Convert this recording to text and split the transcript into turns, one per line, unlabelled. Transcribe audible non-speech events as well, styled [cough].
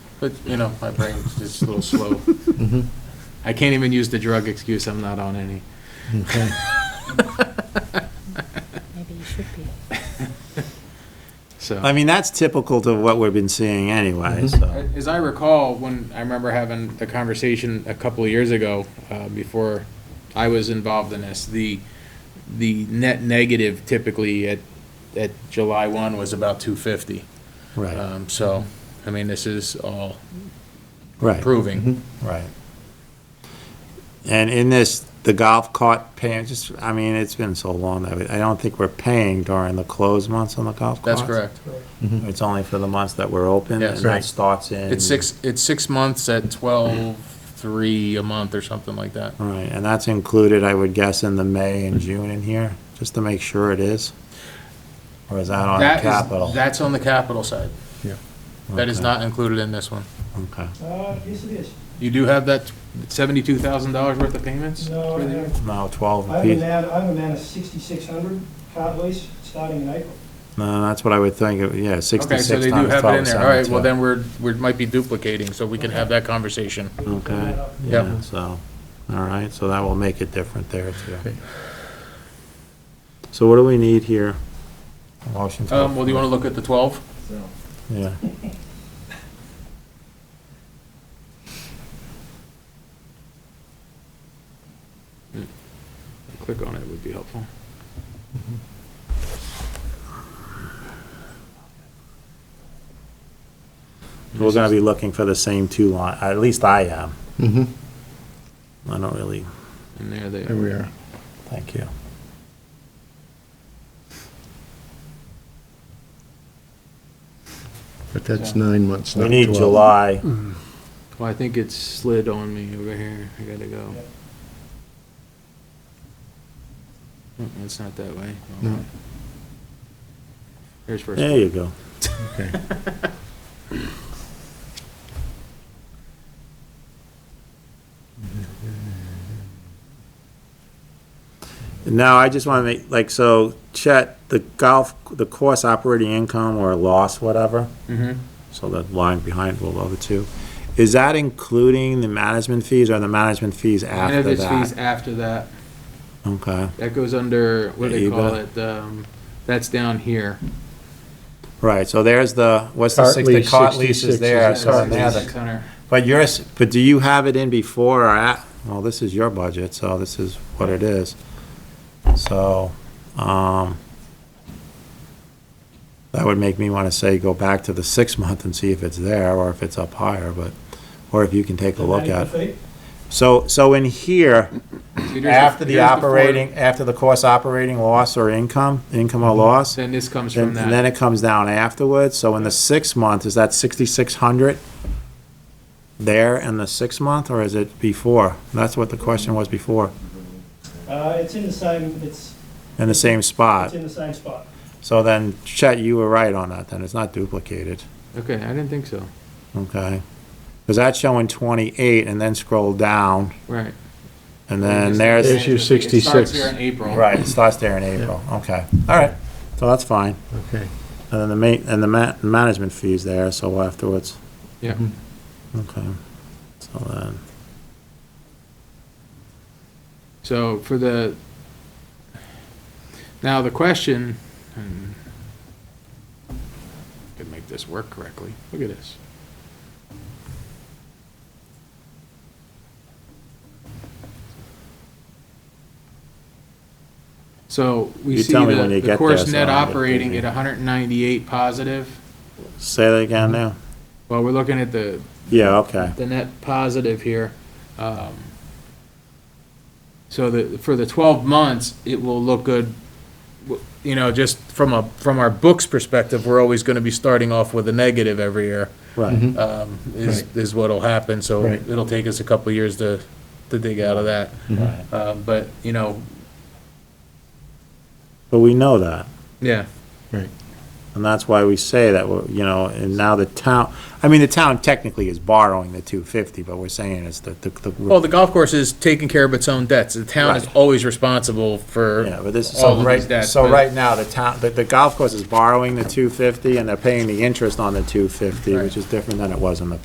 But, you know, my brain's just a little
[laughs]
slow.
Mm-hmm.
Mhm.
I can't even use the drug excuse, I'm not on any.
Okay.
Maybe you should be.
So,
I mean, that's typical to what we've been seeing
Mm-hmm.
anyway, so.
as I recall, when, I remember having the conversation a couple of years ago, uh, before I was involved in this, the, the net negative typically at, at July 1 was about 250.
Right, Mm-hmm.
Um, So, I mean, this is all
right. Mm-hmm.
proving.
Right. And in this, the golf cart paying, just, I mean, it's been so long that I don't think we're paying during the closed months on the golf carts.
That's correct.
It's only for the months that we're open, and
Yes.
that
Right.
starts in.
It's six, it's six months at 12, 3 a month or something like that.
Right, and that's included, I would guess, in the May and June in here, just to make sure it is? Or is that on
That is-
capital?
That's on the capital side. That is
Okay,
not included in this one.
Okay,
Uh, yes, it is.
You do have that seventy-two thousand dollars worth of payments?
No, I
for the year?
have,
no, twelve
I have a
apiece.
man, I have a man of sixty-six hundred cart lease starting in April.
No, that's what I would think, it- yeah,
Okay,
sixty-six
so
times
they do
twelve.
have it in there. All right, well
72.
then we're, we might be duplicating, so we can have that conversation.
We can clean that
Okay,
up.
Yep.
yeah, so, all right, so that will make it different there too.
Okay.
So what do we need here? Motion to.
Um, well, do you wanna look at the twelve?
So,
Yeah,
Click on it would be helpful.
we're gonna be looking for the same two line, at least I am.
Mhm.
I don't really,
And there they
There
are.
we are.
thank you.
But that's nine months,
We
not
need
12.
July.
Well, I think it slid on me over here. I gotta go. Mm, It's not that way.
No.
Okay. Here's first.
There you go.
Okay.
Now, I just want to make, like, so Chet, the golf, the course operating income or loss, whatever,
Mm-hmm.
so the line behind will over two, is that including the management fees or the management fees after
fees
that?
after that.
Okay,
That goes under, what do they
Yeah,
call
EBIT.
it? Um, that's down here.
right, so there's the, what's the
Cart
six, the
lease,
cart leases
66
there,
is
so
that.
then there's
Six hundred.
But yours, but do you have it in before or at, well, this is your budget, so this is what it is. So, um, that would make me want to say, go back to the six month and see if it's there or if it's up higher, but, or if you can take a look at.
Ninety feet?
So, so in here,
See, there's a-
after the
here's four-
operating, after the course operating loss or income, income or loss,
Then this comes from
and and then
that.
it comes down afterwards, so in the six month, is that sixty-six hundred there in the six month, or is it before? That's what the question was before,
Uh, it's in the same, it's,
in the same
it's
spot.
in the same spot.
So then, Chet, you were right on that, then, it's not duplicated,
Okay, I didn't think so.
okay? Because that's showing twenty-eight, and then scroll down,
Right.
and then
There's
there's,
your
It starts
66.
here in April.
right, it starts there in April, okay, all right, so that's fine.
Okay.
And then the ma, and the ma, management fees there, so afterwards,
Yeah.
okay, so then.
So for the, now the question, and could make this work correctly. Look at this. So we
You
see
tell me when
the,
you
the
get
course
this,
net
I'll get
operating at
busy.
hundred and ninety-eight positive.
Say that again now?
Well, we're looking at the,
Yeah, okay.
the net positive here. Um, So the, for the 12 months, it will look good, w- you know, just from a, from our books perspective, we're always going to be starting off with a negative every year,
Right.
um, is, is what'll happen, so
Right.
it'll take us a couple of years to, to dig out of that.
Right.
Uh, But, you know,
But we know that,
yeah,
Right.
and that's why we say that, we're- you know, and now the town, I mean, the town technically is borrowing the two fifty, but we're saying it's the, the-
well,
the,
the golf course is taking care of its own debts, the town is
Right.
always responsible for
yeah, but this is,
all
so
of these
right,
debts.
so
but-
right now, the town, the, the golf course is borrowing the two fifty, and they're paying the interest on the two fifty,
Right.
which is different than it was in the